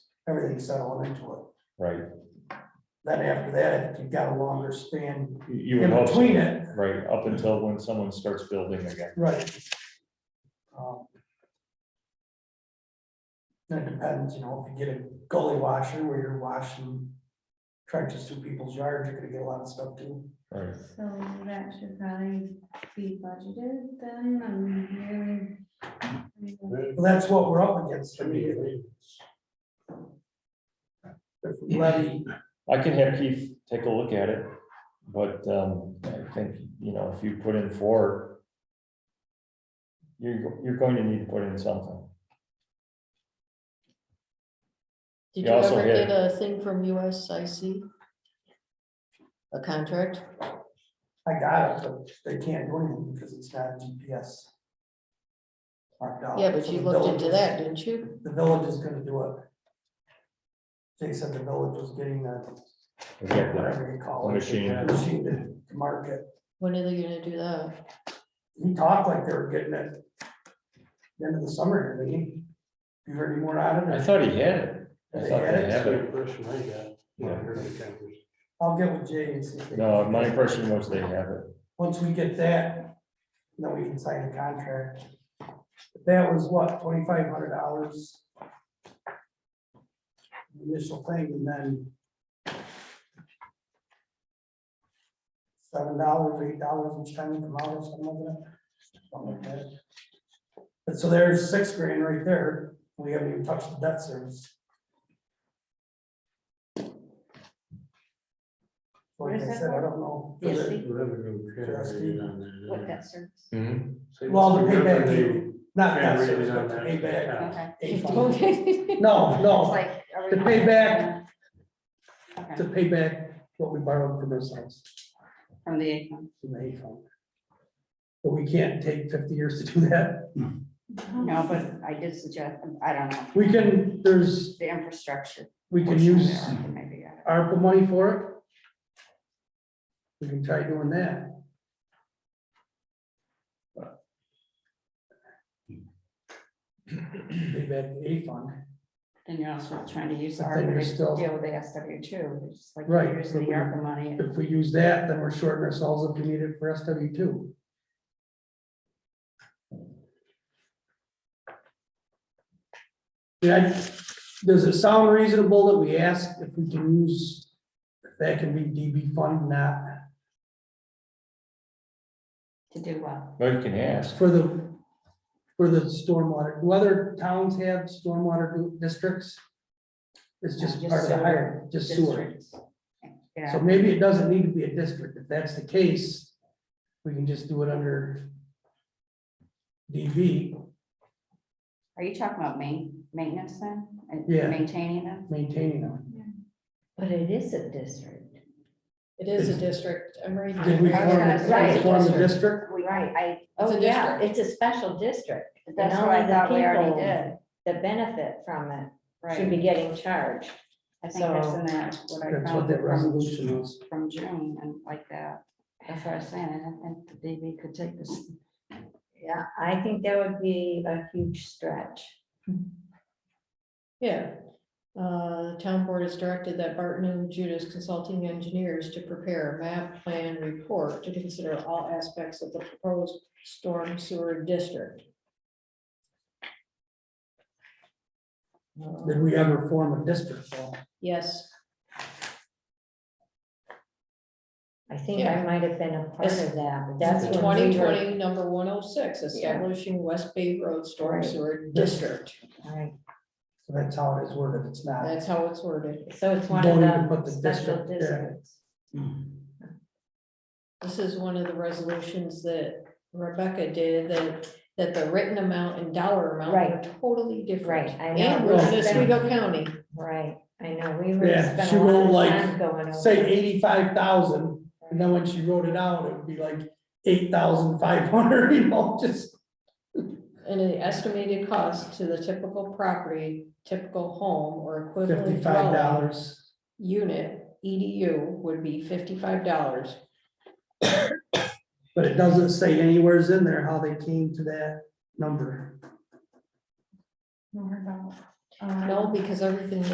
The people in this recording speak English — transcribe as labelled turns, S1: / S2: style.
S1: everything's settling into it.
S2: right?
S1: Then after that, you've got a longer span
S2: You- You would
S1: in
S2: hope, so,
S1: between it.
S2: right, up until when someone starts building again,
S1: Right. Um, It depends, you know, if you get a gully washer where you're washing trenches through people's yards, you're gonna get a lot of stuff too.
S2: right?
S3: So that should probably be budgeted then, and really.
S1: But that's what we're up against immediately. If we levy,
S2: I can have Keith take a look at it, but um, I think, you know, if you put in four, you're, you're going to need to put in something.
S4: Did
S2: You
S4: you
S2: also
S4: ever
S2: had-
S4: get a thing from USIC? A contract?
S1: I got it, but they can't do anything because it's not GPS. marked out.
S4: Yeah, but
S1: So
S4: you
S1: the
S4: looked into
S1: village-
S4: that, didn't you?
S1: The village is gonna do it. They said the village was getting the, whatever you call it.
S2: Machine.
S1: Machine to mark it.
S4: When are they gonna do that?
S1: He talked like they were getting it. End of the summer, didn't he? You heard any more on it?
S2: I
S1: or-
S2: thought he had it. I
S1: They
S2: thought
S1: had
S2: they
S1: it?
S2: had
S5: That's the
S2: it.
S5: impression I got. when I
S2: Yeah.
S5: heard the conversation.
S1: I'll get with Jay and see. if they-
S2: No, my impression was they have it.
S1: Once we get that, then we can sign the contract. That was what, twenty-five hundred dollars? Initial thing, and then seven dollars, eight dollars each time you come out or something like that. Something like that. And so there's six grand right there. We haven't even touched the debt service. Like I said, I don't know.
S3: Yes,
S5: That's Revenue generated on
S1: Mm.
S3: What
S5: that. uh,
S3: that service?
S5: Say
S1: Well, the
S5: what's the
S1: payback,
S5: revenue
S1: due- not that
S5: generated
S1: service,
S5: on
S1: but the
S5: that
S1: payback.
S5: account?
S3: Okay.
S1: A fund.
S4: Okay.
S1: No,
S3: It's
S1: no,
S3: like, are we
S1: The
S3: not-
S1: payback. to
S3: Okay,
S1: pay back what we borrowed from ourselves
S3: From the income.
S1: from the A fund. But we can't take fifty years to do that.
S3: No, but I did suggest, I don't know.
S1: We can, there's,
S3: The infrastructure.
S1: we can
S3: portion
S1: use
S3: there, Maybe, yeah.
S1: ARPA money for it. We can try doing that. Pay back the A fund,
S3: And you're also trying to use the
S1: But then you're
S3: ARPA
S1: still-
S3: to deal with the SW two, which is like
S1: Right,
S3: you're using
S1: but
S3: the
S1: we're-
S3: ARPA money.
S1: if we use that, then we're shorting ourselves if we need it for SW two. Yeah, does it sound reasonable that we ask if we can use, if that can be DB fund, not
S3: To do what?
S2: But you can ask.
S1: for the, for the stormwater, do other towns have stormwater districts? It's just
S3: No, just
S1: part of the
S3: sewer
S1: higher, just sewer,
S3: Districts. Yeah.
S1: so maybe it doesn't need to be a district, if that's the case, we can just do it under DB,
S3: Are you talking about main, maintenance then? and
S1: Yeah.
S3: Maintaining them?
S1: maintaining them.
S6: But it is a district.
S4: It is a district, I'm reading.
S1: Did we
S4: it.
S1: form, did we form a district?
S3: We, I,
S6: Oh,
S4: a
S6: yeah, it's a special district. and
S3: that's what
S6: only
S3: I
S6: the
S3: thought we already
S6: people
S3: did,
S6: That benefit from it should
S3: right?
S6: be getting charged.
S3: I think that's in that, what I
S1: That's what
S3: found
S1: that
S3: from,
S1: resolution was.
S3: from June and like that. That's what I was saying, I don't think the DB could take this.
S6: Yeah, I think that would be a huge stretch.
S4: Yeah. Uh, the town board has directed that Barton and Judas Consulting Engineers to prepare a map plan report to consider all aspects of the proposed storm sewer district.
S1: Did we ever form a district? Well,
S4: Uh, Yes,
S6: I think I
S4: Yeah.
S6: might have been a part
S4: It's-
S6: of that, but that's
S4: that's
S6: when
S4: twenty
S6: we were.
S4: twenty, number one oh six, establishing West Bay Road Storm
S6: Right.
S4: Sewer District.
S6: Right,
S1: So that's how it is worded, it's not.
S4: That's how it's worded.
S6: So it's one
S1: Don't
S6: of
S1: need to put
S6: the
S1: the
S6: special
S1: district there.
S6: districts.
S4: This is one of the resolutions that Rebecca did, that, that the written amount and dollar amount
S6: Right.
S4: are totally different.
S6: Right, I know.
S4: And we're in
S6: Right.
S4: Oswego County.
S6: Right, I know, we were.
S1: Yeah,
S6: spent
S1: she
S6: a lot
S1: wrote
S6: of
S1: like,
S6: time going over
S1: Say
S6: it.
S1: eighty-five thousand, and then when she wrote it out, it would be like eight thousand five hundred, you know, just.
S4: And the estimated cost to the typical property, typical home or equivalent
S1: Fifty-five
S4: dwelling
S1: dollars.
S4: unit, EDU, would be fifty-five dollars.
S1: But it doesn't say anywheres in there how they came to that number.
S3: No, um,
S4: No, because everything